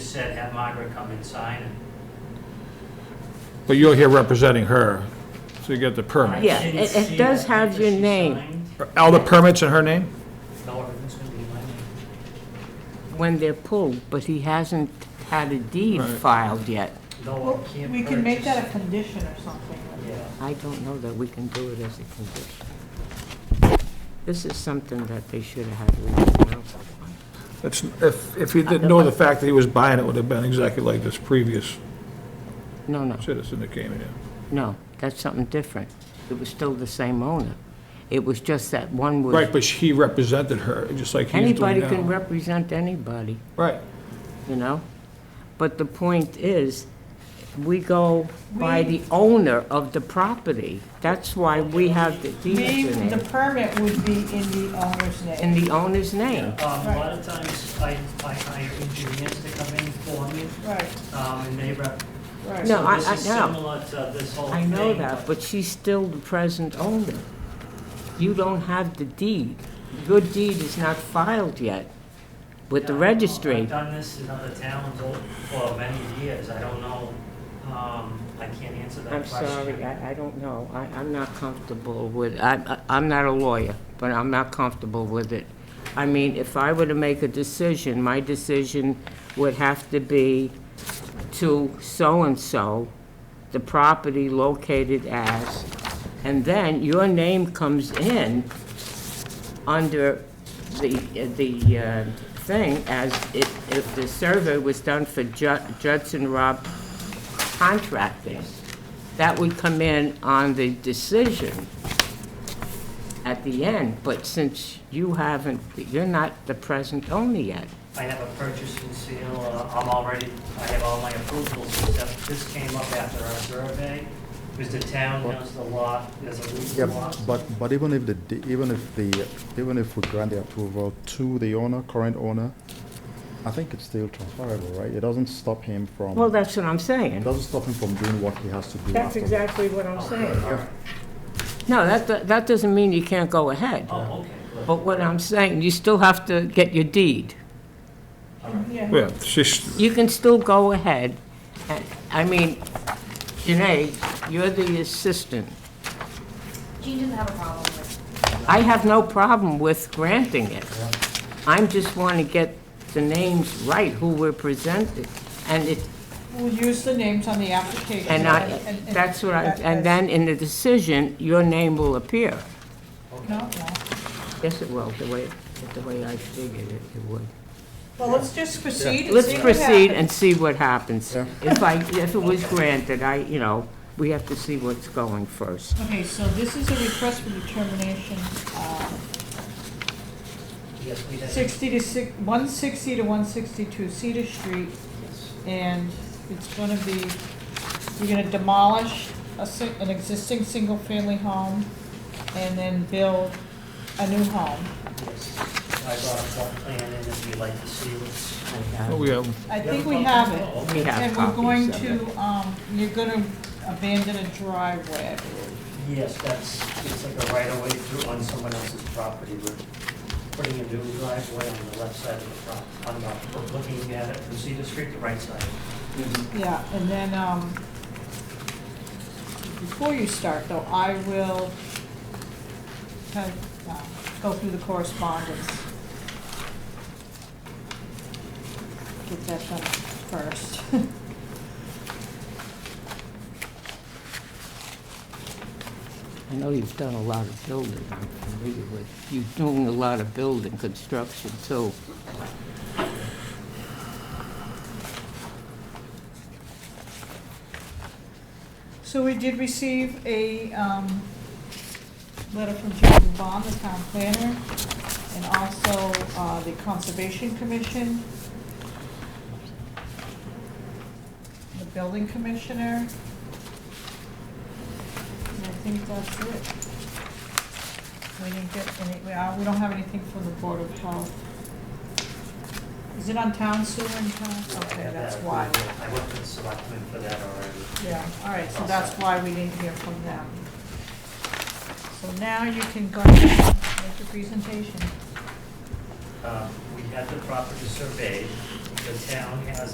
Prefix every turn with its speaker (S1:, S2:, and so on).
S1: just said, have Margaret come and sign and
S2: But you're here representing her, so you get the permit.
S3: Yeah,
S1: I didn't
S3: it- it
S1: see
S3: does
S1: that.
S3: have your
S1: She
S3: name.
S1: signed.
S2: All the permits in her name?
S1: No, everything's gonna be in my name.
S3: when they're pulled, but he hasn't had a deed filed yet.
S1: No, I can't
S4: We can make that a
S1: purchase.
S4: condition or something.
S1: Yeah.
S3: I don't know that we can do it as a condition. This is something that they should have had.
S2: That's, if, if he didn't know the fact that he was buying it, would have been exactly like this previous
S3: No, no,
S2: citizen that came in.
S3: no, that's something different. It was still the same owner. It was just that one was.
S2: Right, but he represented her, just like he's doing
S3: Anybody can
S2: now.
S3: represent anybody.
S2: Right,
S3: you know? But the point is, we go by the owner of the property. That's why we have the
S4: Maybe
S3: deeds in
S4: the
S3: it,
S4: permit would be in the owner's name.
S3: in the owner's name.
S1: Um, a lot of times, I, I hire engineers to come in for me,
S4: Right,
S1: um, and they rep.
S4: right.
S3: No,
S1: so
S3: I-
S1: this
S3: I
S1: is
S3: know.
S1: Similar to this whole
S3: I
S1: thing.
S3: know that, but she's still the present owner. You don't have the deed. Your deed is not filed yet with the
S1: Yeah,
S3: registry.
S1: I've done this in other towns o- for many years, I don't know, um, I can't answer that
S3: I'm
S1: question.
S3: sorry, I, I don't know. I, I'm not comfortable with, I, I- I'm not a lawyer, but I'm not comfortable with it. I mean, if I were to make a decision, my decision would have to be to so-and-so, the property located as, and then your name comes in under the, the uh, thing as if, if the survey was done for Ju- Judson Rob Contracting. That would come in on the decision at the end, but since you haven't, you're not the present owner yet.
S1: I have a purchase and sale, uh, I'm already, I have all my approvals, except this came up after our survey, because the town owns the lot, there's a lease
S5: Yeah,
S1: lot.
S5: but, but even if the, de- even if the, even if we grant the approval to the owner, current owner, I think it's still transferable, right? It doesn't stop him from,
S3: Well,
S5: it
S3: that's what I'm saying.
S5: doesn't stop him from doing what he has to do
S3: That's
S5: after.
S3: exactly what I'm saying. No, that, that- that doesn't mean you can't go ahead.
S1: Oh, okay, good.
S3: But what I'm saying, you still have to get your deed.
S4: Yeah.
S2: yeah, she's,
S3: You can still go ahead. and- I mean, Janae, you're the assistant.
S6: Gene doesn't have a problem with
S3: I have no problem with granting it. I'm just want to get the names right, who were presented. And it,
S4: We'll use the names on the application.
S3: and I,
S4: and- and-
S3: that's what I,
S4: that-
S3: and
S4: that's-
S3: then in the decision, your name will appear.
S4: No, no.
S3: Yes, it will, the way, the way I figured it, it would.
S4: Well, let's just proceed and
S3: Let's
S4: see what
S3: proceed
S4: happens.
S3: and see what happens.
S5: Yeah.
S3: If I, if it was granted, I, you know, we have to see what's going first.
S4: Okay, so this is a request for determination, uh,
S1: Yes, we have.
S4: 60 to 6, 160 to 162 Cedar Street,
S1: Yes.
S4: and it's gonna be, you're gonna demolish a, si- an existing single-family home and then build a new home.
S1: Yes. I brought a plot plan in if you'd like to see what's.
S3: I have-
S2: oh, we have,
S4: I think we have it.
S1: Oh,
S3: We
S1: okay.
S3: have
S4: And we're
S3: copies
S4: going
S3: of it.
S4: to, um, you're gonna abandon a driveway, I believe.
S1: Yes, that's, it's like a right of way through on someone else's property. We're putting a new driveway on the left side of the front. I'm not looking at it from Cedar Street, the right side.
S4: Yeah, and then, um, before you start though, I will kind of, uh, go through the correspondence. Get that done first.
S3: I know you've done a lot of building, I'm familiar with, you're doing a lot of building, construction too.
S4: So we did receive a, um, letter from Jordan Bond, the town planner, and also, uh, the Conservation Commission, the Building Commissioner. And I think that's it. We didn't get any, we, uh, we don't have anything from the Board of Health. Is it on town sewer and town?
S1: I
S4: Okay,
S1: have
S4: that's
S1: that
S4: why.
S1: approval. I went to the selectmen for that already.
S4: Yeah, all right, so that's why we didn't hear from them. So now you can go ahead and make your presentation.
S1: Um, We had the property surveyed. The town has